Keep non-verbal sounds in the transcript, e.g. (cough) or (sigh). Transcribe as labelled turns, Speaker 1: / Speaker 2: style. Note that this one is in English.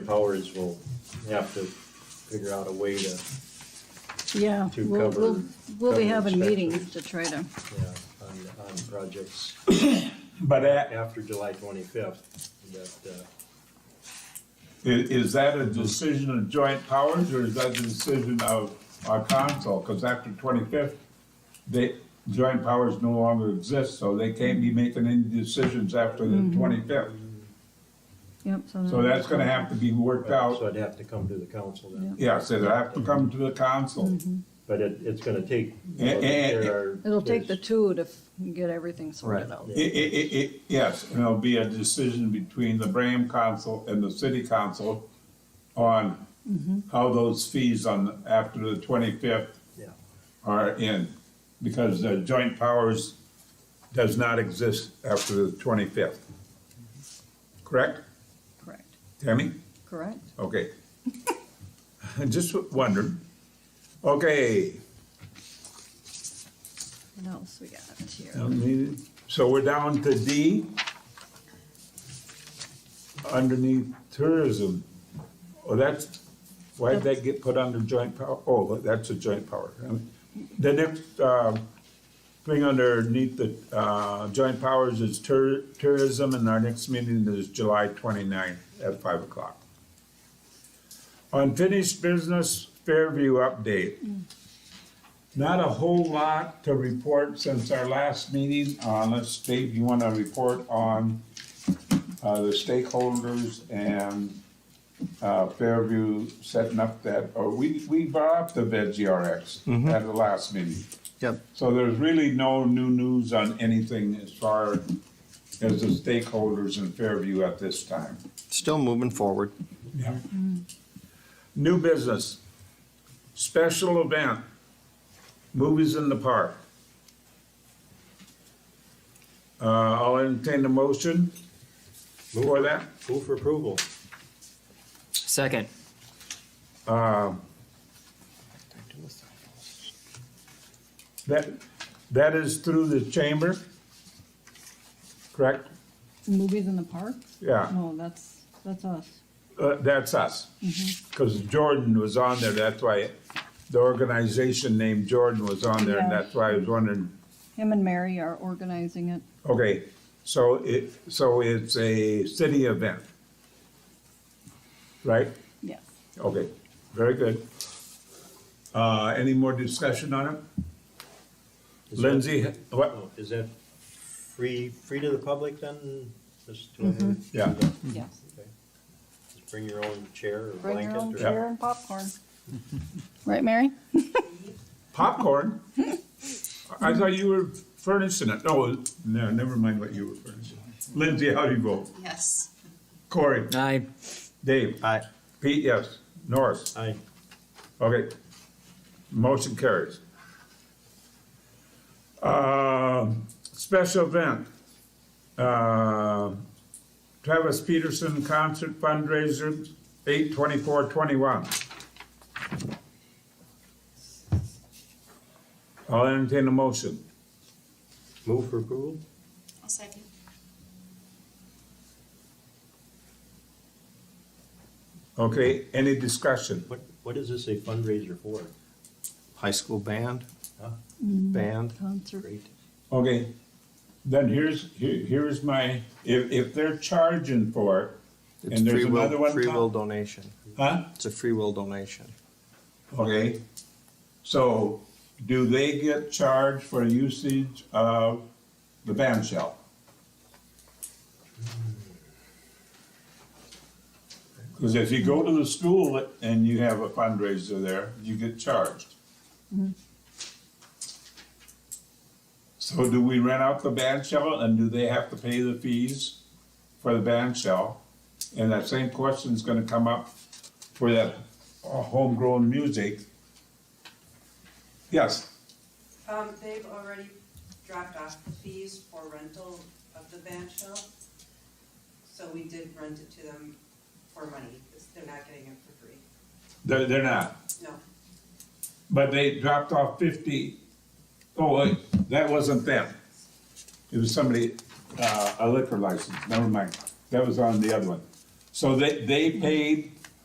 Speaker 1: Powers will have to figure out a way to,
Speaker 2: Yeah,
Speaker 1: to
Speaker 2: we'll,
Speaker 1: cover-
Speaker 2: we'll, we'll be
Speaker 1: cover
Speaker 2: having meetings
Speaker 1: inspectors.
Speaker 2: to try to,
Speaker 1: yeah, on, on projects
Speaker 3: But uh, a-
Speaker 1: after July twenty-fifth, that, uh,
Speaker 3: i- is that a decision of joint powers or is that the decision of our council? Because after twenty-fifth, they, joint powers no longer exist, so they can't be making any decisions after the twenty-fifth.
Speaker 2: yep, so.
Speaker 3: So that's gonna have to be worked
Speaker 1: so
Speaker 3: out.
Speaker 1: I'd have to come to the council then.
Speaker 3: Yeah, so they have to come to the council.
Speaker 1: But it, it's gonna take. you know,
Speaker 3: Eh, eh,
Speaker 1: there are-
Speaker 2: It'll take the
Speaker 1: there's-
Speaker 2: two to f- get everything sorted out.
Speaker 3: I- i- i- i- yes, and it'll be a decision between the Bram Council and the city council on how those fees on, after the twenty-fifth
Speaker 1: Yeah.
Speaker 3: are in, because the joint powers does not exist after the twenty-fifth. Correct,
Speaker 2: Correct,
Speaker 3: Tammy?
Speaker 2: correct?
Speaker 3: Okay. (laughs) I Just wondered. Okay,
Speaker 2: What else we got here?
Speaker 3: um, so we're down to D. Underneath tourism. Oh, that's, why did that get put under joint power? Oh, that's a joint power. The next, um, thing underneath the, uh, joint powers is tour, tourism, and our next meeting is July twenty-ninth at five o'clock. Unfinished business Fairview update. Not a whole lot to report since our last meeting, unless Dave, you wanna report on, uh, the stakeholders and, uh, Fairview setting up that, or we, we brought up the VGRX at the last meeting.
Speaker 4: Yep.
Speaker 3: So there's really no new news on anything as far as the stakeholders in Fairview at this time.
Speaker 4: Still moving forward.
Speaker 3: Yeah. New business, special event, movies in the park. Uh, I'll entertain the motion for that.
Speaker 1: Move for approval.
Speaker 5: Second.
Speaker 3: That, that is through the chamber, correct?
Speaker 2: Movies in the park?
Speaker 3: Yeah.
Speaker 2: No, that's, that's us.
Speaker 3: Uh, that's us. Because Jordan was on there, that's why the organization named Jordan was on there, and
Speaker 2: Yeah.
Speaker 3: that's why I was wondering.
Speaker 2: Him and Mary are organizing it.
Speaker 3: Okay, so it, so it's a city event, right?
Speaker 2: Yes.
Speaker 3: Okay, very good. Uh, any more discussion on it?
Speaker 1: Is that-
Speaker 3: Lindsay, what?
Speaker 1: Oh, Is that free, free to the public then? Just to-
Speaker 2: Mm-hmm.
Speaker 3: Yeah.
Speaker 2: Yes.
Speaker 1: Okay. Just Bring your own chair or
Speaker 2: Bring your own
Speaker 1: blanket or
Speaker 2: chair and popcorn. (laughs) Right, Mary?
Speaker 3: Popcorn?
Speaker 1: (laughs)
Speaker 3: I thought you were furnishing it. No, no, never mind what you were furnishing. Lindsay, how do you vote?
Speaker 6: Yes.
Speaker 3: Corey?
Speaker 5: Aye.
Speaker 3: Dave?
Speaker 4: Aye.
Speaker 3: Pete, yes. Norris?
Speaker 1: I,
Speaker 3: Okay. Motion carries. Uh, Special event. Uh, Travis Peterson Concert Fundraiser, eight twenty-four twenty-one. I'll entertain a motion.
Speaker 1: move for approval?
Speaker 6: I'll second.
Speaker 3: Okay, any discussion?
Speaker 1: What, what is this a fundraiser for?
Speaker 4: High school band.
Speaker 1: Huh?
Speaker 4: Band.
Speaker 2: Concert.
Speaker 1: Great.
Speaker 3: Okay, then here's, here, here's my, if, if they're charging for it,
Speaker 4: It's
Speaker 3: and there's
Speaker 4: free will,
Speaker 3: another one.
Speaker 4: free
Speaker 3: com-
Speaker 4: will donation.
Speaker 3: Huh?
Speaker 4: It's a free will donation.
Speaker 3: Okay, so do they get charged for usage of the band shell? Because if you go to the school and you have a fundraiser there, you get charged. So do we rent out the band shell and do they have to pay the fees for the band shell? And that same question's gonna come up for that uh, homegrown music. Yes,
Speaker 7: Um, they've already dropped off the fees for rental of the band shell. So we did rent it to them for money, because they're not getting it for free.
Speaker 3: they're, they're not,
Speaker 7: No,
Speaker 3: but they dropped off fifty. Oh, wait, that wasn't them. It was somebody, uh, a liquor license, never mind, that was on the other one. So they, they paid